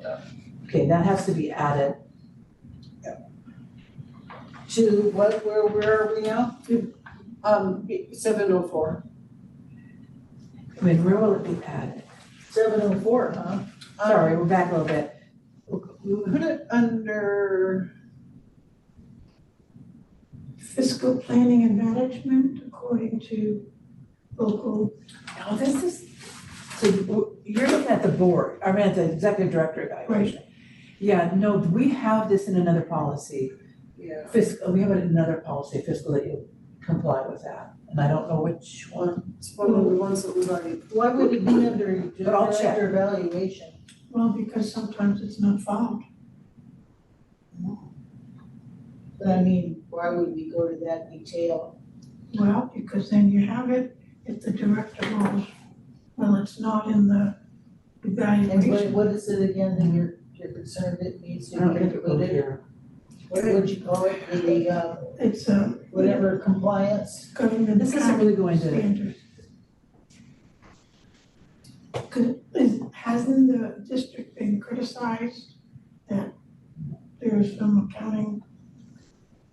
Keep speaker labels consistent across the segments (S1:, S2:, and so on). S1: stuff.
S2: Okay, that has to be added.
S3: to what, where, where are we now? Um, seven oh four.
S2: I mean, where will it be added?
S1: Seven oh four, huh?
S2: Sorry, we're back a little bit.
S3: Put it under,
S4: fiscal planning and management according to local,
S2: Now, this is, so you- you're looking at the board, I mean, at the executive director evaluation. Yeah, no, we have this in another policy,
S3: yeah,
S2: fiscal, we have it in another policy, fiscal that you comply with that. And I don't know which one,
S3: it's one of the ones that we've already,
S1: Why would it be under
S2: But I'll check.
S1: director evaluation?
S4: well, because sometimes it's not followed.
S1: But I mean, why would we go to that detail?
S4: Well, because then you have it if the director rules, well, it's not in the
S1: And what,
S4: evaluation.
S1: what is it again that you're, you're concerned it needs to
S2: I
S1: be
S2: don't think it will be
S1: included?
S2: here.
S1: What would you call it, the, uh,
S4: It's a
S1: whatever compliance?
S4: government
S2: This isn't really going to,
S4: standard. Cause is, hasn't the district been criticized that there's some accounting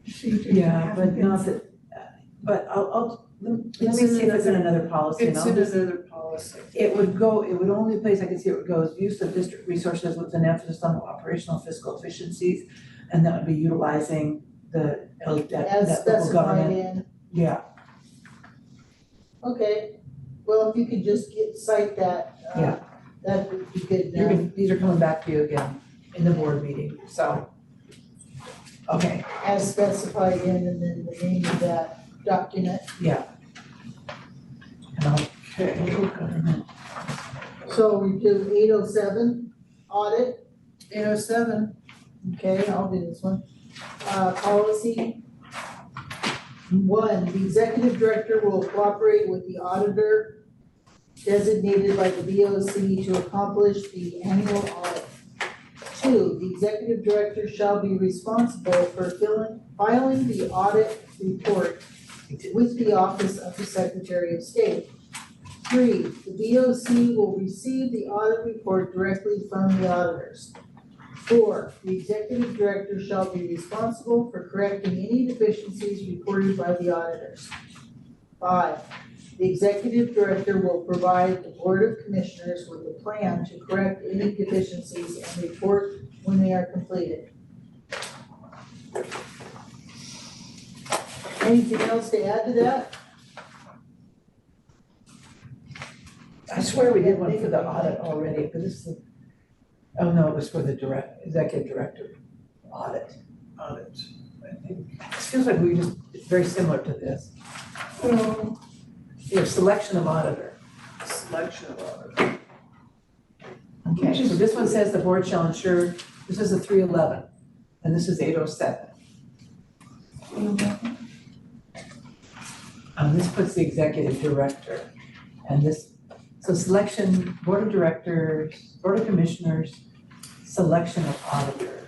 S4: procedures that
S2: yeah,
S4: haven't
S2: but
S4: been
S2: not that, uh, but I'll, I'll, let me let me
S3: It's in
S2: see if it's in another policy and
S3: it's
S2: I'll
S3: in
S2: just-
S3: another policy.
S2: It would go, it would only place I can see where it goes, use of district resources with an emphasis on operational fiscal efficiencies. And that would be utilizing the, L- that,
S1: As
S2: that local
S1: specified
S2: government,
S1: in,
S2: yeah,
S1: okay, well, if you could just get, cite that, uh,
S2: Yeah.
S1: that would be good uh,
S2: you're,
S1: now.
S2: gonna- these are coming back to you again in the board meeting, so. Okay,
S1: As specified in and then the name of that document.
S2: and I'll, local government,
S1: So we do eight oh seven, audit.
S3: Eight oh seven,
S1: Okay, I'll do this one. Uh, policy. One, the executive director will cooperate with the auditor designated by the VOC to accomplish the annual audit. Two, the executive director shall be responsible for filing, filing the audit report with the office of the secretary of state. Three, the VOC will receive the audit report directly from the auditors. Four, the executive director shall be responsible for correcting any deficiencies reported by the auditors. Five, the executive director will provide the board of commissioners with a plan to correct any deficiencies and report when they are completed. Anything else to add to that?
S2: I swear we did one for the audit already, but this is. Oh, no, it was for the direct, executive director audit,
S3: audit, I think.
S2: this feels like we just, it's very similar to this,
S4: Well,
S2: you know, selection of auditor.
S3: selection of audit.
S2: Okay, so this one says the board shall ensure, this is a three eleven, and this is eight oh seven. Um, this puts the executive director, and this, so selection, board of directors, board of commissioners, selection of auditor.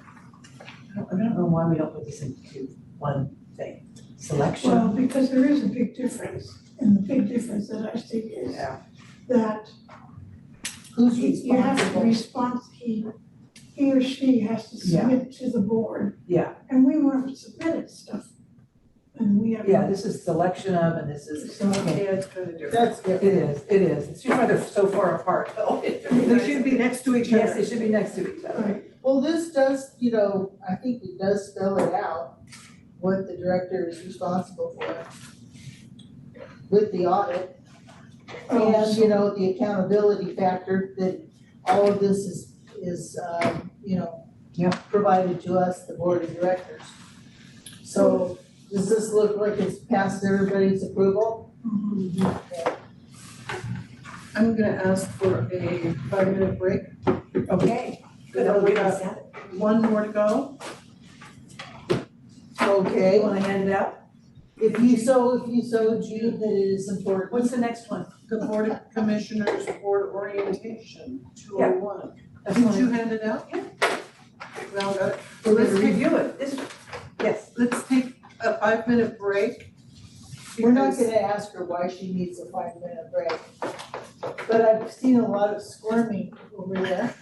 S2: I don't, I don't know why we don't put this into one thing, selection,
S4: well, because there is a big difference, and the big difference that I see is
S2: Yeah.
S4: that
S1: Who's
S4: he, you have to
S1: responsible?
S4: respons he, he or she has to
S2: Yeah.
S4: submit to the board.
S2: Yeah.
S4: And we weren't submitted stuff, and we have.
S2: yeah, this is selection of, and this is,
S4: So,
S2: okay,
S3: Yeah, it's kind of different.
S1: That's
S2: it
S1: good.
S2: is, it is, it's too far, they're so far apart, though.
S3: They should be next to each
S2: Yes,
S3: other.
S2: they should be next to each other.
S4: Right,
S1: Well, this does, you know, I think it does spell it out, what the director is responsible for with the audit.
S4: Oh,
S1: And, you know, the accountability factor that all of this is, is, um, you know,
S2: Yeah.
S1: provided to us, the board of directors. So does this look like it's passed everybody's approval?
S4: Mhm.
S3: I'm gonna ask for a five-minute break.
S2: Okay.
S3: Good, I'll wait on One more to go.
S2: They
S1: Okay,
S2: wanna hand it out?
S1: if you so, if you so, Jude, that it is important.
S2: What's the next one?
S3: The Board of Commissioners Board Orientation, two oh one.
S2: That's
S3: Did
S2: one.
S3: you hand it out? Yeah. Now, uh,
S2: Well, let's
S3: let's take,
S2: review it. This, yes.
S3: let's take a five-minute break.
S1: We're not
S3: because-
S1: gonna ask her why she needs a five minute break. But I've seen a lot of squirming over there.